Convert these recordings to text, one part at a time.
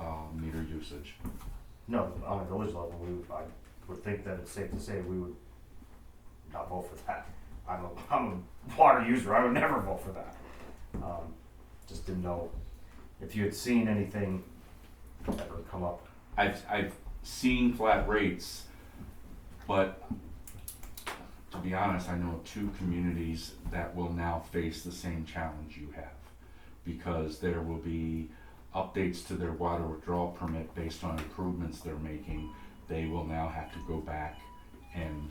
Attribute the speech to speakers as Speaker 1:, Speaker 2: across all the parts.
Speaker 1: uh, usage.
Speaker 2: No, on a village level, we, would- I would think that it's safe to say we would not vote for that. I'm a, I'm a water user, I would never vote for that. Um, just didn't know if you had seen anything ever come up.
Speaker 1: I've, I've seen flat rates, but to be honest, I know two communities that will now face the same challenge you have. Because there will be updates to their water withdrawal permit based on improvements they're making. They will now have to go back and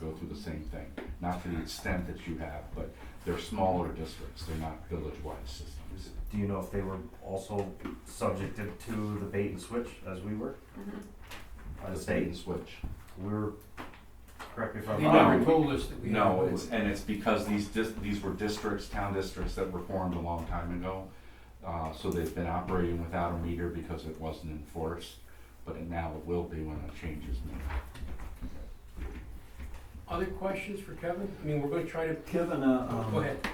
Speaker 1: go through the same thing. Not to the extent that you have, but they're smaller districts, they're not village-wide systems.
Speaker 2: Do you know if they were also subjected to the bait and switch as we were? By the
Speaker 1: Bait
Speaker 2: state,
Speaker 1: and switch.
Speaker 2: we were, correct me if I'm
Speaker 3: They
Speaker 1: No.
Speaker 3: never
Speaker 2: wrong.
Speaker 3: told us that we had
Speaker 1: No,
Speaker 3: to do
Speaker 1: it's,
Speaker 3: it.
Speaker 1: and it's because these dis, these were districts, town districts that were formed a long time ago. Uh, so they've been operating without a meter because it wasn't enforced, but it now it will be when a change is made.
Speaker 3: Other questions for Kevin? I mean, we're gonna try to,
Speaker 4: Kevin, uh,
Speaker 3: go
Speaker 4: um,
Speaker 3: ahead.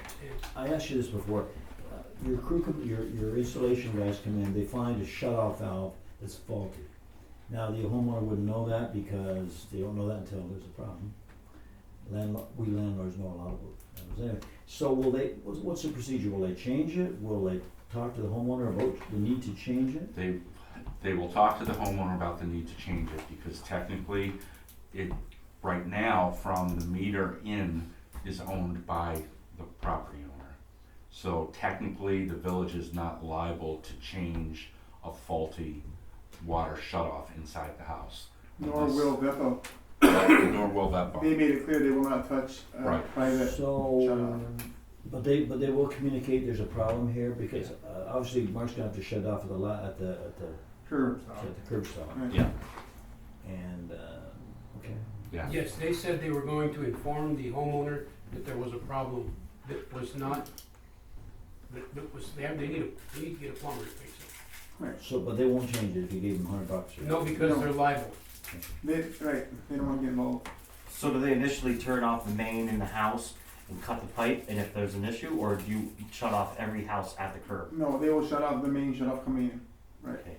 Speaker 4: I asked you this before. Uh, Your crew, com- your, your installation guys come in, they find a shut-off valve that's faulty. Now, the homeowner wouldn't know that because they don't know that until there's a problem. Landlord, we landlords know a lot of it. Anyway, So will they, what's, what's the procedure? Will they change it? Will they talk to the homeowner about the need to change it?
Speaker 1: They, they will talk to the homeowner about the need to change it, because technically, it, right now, from the meter in, is owned by the property owner. So technically, the village is not liable to change a faulty water shutoff inside the house.
Speaker 5: Nor will Bethel.
Speaker 1: Nor will that
Speaker 5: They
Speaker 1: bond.
Speaker 5: made it clear they will not touch uh,
Speaker 1: Right.
Speaker 5: private.
Speaker 4: So,
Speaker 5: shut-off.
Speaker 4: but they, but they will communicate there's a problem here because uh, obviously Mark's gonna have to shut off at the lot, at the, at the,
Speaker 5: Sure.
Speaker 4: at the curb stop.
Speaker 5: Right.
Speaker 1: Yeah,
Speaker 4: And, uh, okay.
Speaker 1: yeah.
Speaker 3: Yes, they said they were going to inform the homeowner that there was a problem that was not, that, that was, they have, they need, a- they need to get a plumber to fix it.
Speaker 4: So, but they won't change it if you gave them hundred bucks. or-
Speaker 3: No, because they're liable.
Speaker 5: They, right, they don't want to get involved.
Speaker 6: So do they initially turn off the main in the house and cut the pipe, and if there's an issue, or do you shut off every house at the curb?
Speaker 5: No, they will shut off the main shut off coming in.
Speaker 6: Okay.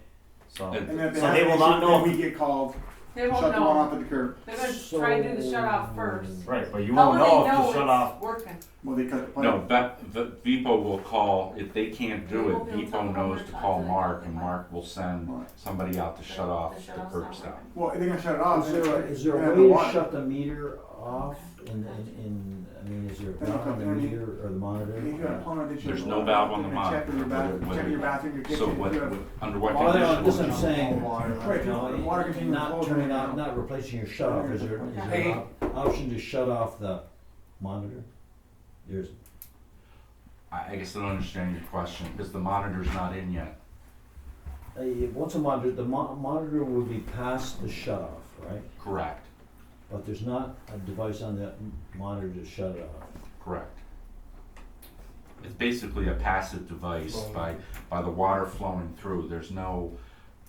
Speaker 6: So
Speaker 1: And-
Speaker 5: And if they
Speaker 6: So
Speaker 5: have
Speaker 6: they
Speaker 5: an
Speaker 6: will
Speaker 5: issue,
Speaker 6: not know
Speaker 5: then
Speaker 6: if-
Speaker 5: we get called,
Speaker 7: They
Speaker 5: shut
Speaker 7: won't
Speaker 5: the one
Speaker 7: know.
Speaker 5: off at the curb.
Speaker 7: They're gonna try to do the shut off first.
Speaker 4: So-
Speaker 6: right, but you
Speaker 7: How
Speaker 6: won't
Speaker 7: will
Speaker 6: know
Speaker 7: they
Speaker 6: if you
Speaker 7: know
Speaker 6: shut
Speaker 7: it's
Speaker 6: off.
Speaker 7: Working.
Speaker 5: Well, they cut the pipe.
Speaker 1: No, that, the, Vipo will call, if they can't do
Speaker 7: They
Speaker 1: it,
Speaker 7: won't be able to tell
Speaker 1: Vipo
Speaker 7: the
Speaker 1: knows
Speaker 7: homeowner
Speaker 1: to
Speaker 7: not
Speaker 1: call
Speaker 7: to-
Speaker 1: Mark, and Mark will send
Speaker 5: Right.
Speaker 1: somebody out to shut off
Speaker 7: The
Speaker 1: the
Speaker 7: shut-off's
Speaker 1: curb
Speaker 7: not
Speaker 1: stop.
Speaker 7: working.
Speaker 5: Well, they're gonna shut it off.
Speaker 4: Oh, Is there, a- is there
Speaker 5: They're
Speaker 4: a
Speaker 5: gonna have the
Speaker 4: way to
Speaker 5: water.
Speaker 4: shut the meter off in, in, in, I mean, is there a
Speaker 5: They don't
Speaker 4: valve on
Speaker 5: have
Speaker 4: the
Speaker 5: any-
Speaker 4: meter or the monitor?
Speaker 5: If you got a plumber, they shut
Speaker 1: There's
Speaker 5: it
Speaker 1: no
Speaker 5: off.
Speaker 1: valve on the
Speaker 5: They're gonna Check in your
Speaker 1: monitor,
Speaker 5: bathroom,
Speaker 1: whether-
Speaker 5: check in your bathroom, your
Speaker 1: So
Speaker 5: kitchen.
Speaker 1: what,
Speaker 5: if you have-
Speaker 1: under what
Speaker 4: Well, I
Speaker 1: condition
Speaker 4: don't-
Speaker 1: would
Speaker 4: that's what I'm
Speaker 1: you-
Speaker 4: saying.
Speaker 5: Right,
Speaker 4: No,
Speaker 5: the water
Speaker 4: it-
Speaker 5: continues
Speaker 4: not
Speaker 5: flowing
Speaker 4: turning
Speaker 5: right
Speaker 4: off,
Speaker 5: now.
Speaker 4: not replacing your shut off, is there, is there
Speaker 3: Hey.
Speaker 4: an op- option to shut off the monitor? There's,
Speaker 1: I, I guess I don't understand your question, because the monitor's not in yet.
Speaker 4: uh, you- once a monitor, the mo- monitor would be past the shut off, right?
Speaker 1: Correct,
Speaker 4: But there's not a device on that m- monitor to shut it off.
Speaker 1: correct. It's basically a passive device by, by the water flowing through, there's no,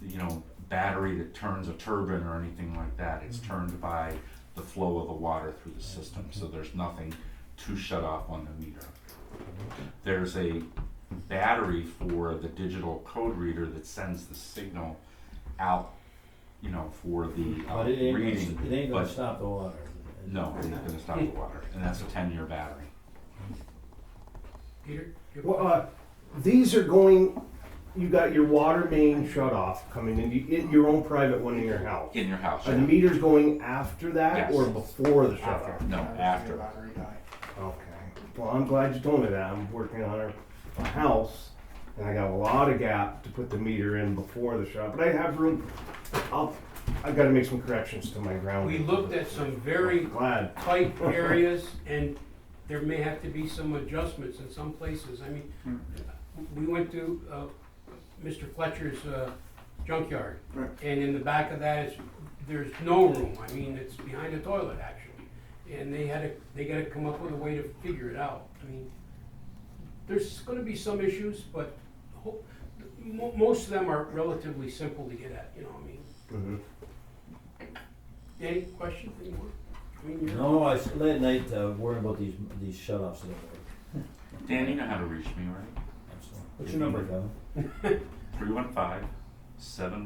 Speaker 1: you know, battery that turns a turbine or anything like that. It's
Speaker 4: Mm-hmm.
Speaker 1: turned by the flow of the water through the system, so there's nothing to shut off on the meter.
Speaker 4: Mm-hmm.
Speaker 1: There's a battery for the digital code reader that sends the signal out, you know, for the uh,
Speaker 4: But it ain't, gonna
Speaker 1: reading.
Speaker 4: s- it ain't gonna
Speaker 1: but-
Speaker 4: stop the water.
Speaker 1: No, it's not gonna stop the water, and that's a ten-year battery.
Speaker 3: Peter? your
Speaker 8: Well, uh, these are going, you got your water main shut off coming in, you get your own private one in your house.
Speaker 1: In your house,
Speaker 8: Are the meters going after that
Speaker 1: Yes.
Speaker 8: or before the shut off?
Speaker 1: no, after.
Speaker 5: Battery die.
Speaker 8: Okay, well, I'm glad you told me that, I'm working on our, a house, and I got a lot of gap to put the meter in before the shut off, but I have room. I'll, I've gotta make some corrections to my ground.
Speaker 3: We looked at some very
Speaker 8: Glad,
Speaker 3: tight areas, and there may have to be some adjustments in some places. I mean, we went to uh, Mr. Fletcher's uh, junkyard,
Speaker 5: Right.
Speaker 3: and in the back of that is, there's no room. I mean, it's behind the toilet, actually. And they had to, they gotta come up with a way to figure it out. I mean, there's gonna be some issues, but ho- mo- most of them are relatively simple to get at, you know, I mean.
Speaker 8: Mhm.
Speaker 3: Any questions anymore? I mean, you're-
Speaker 4: No, I s- late at night uh, worrying about these these shut offs that work.
Speaker 1: Dan, you know how to reach me, right?
Speaker 4: What's your number, Kevin?
Speaker 1: Three one five, seven one.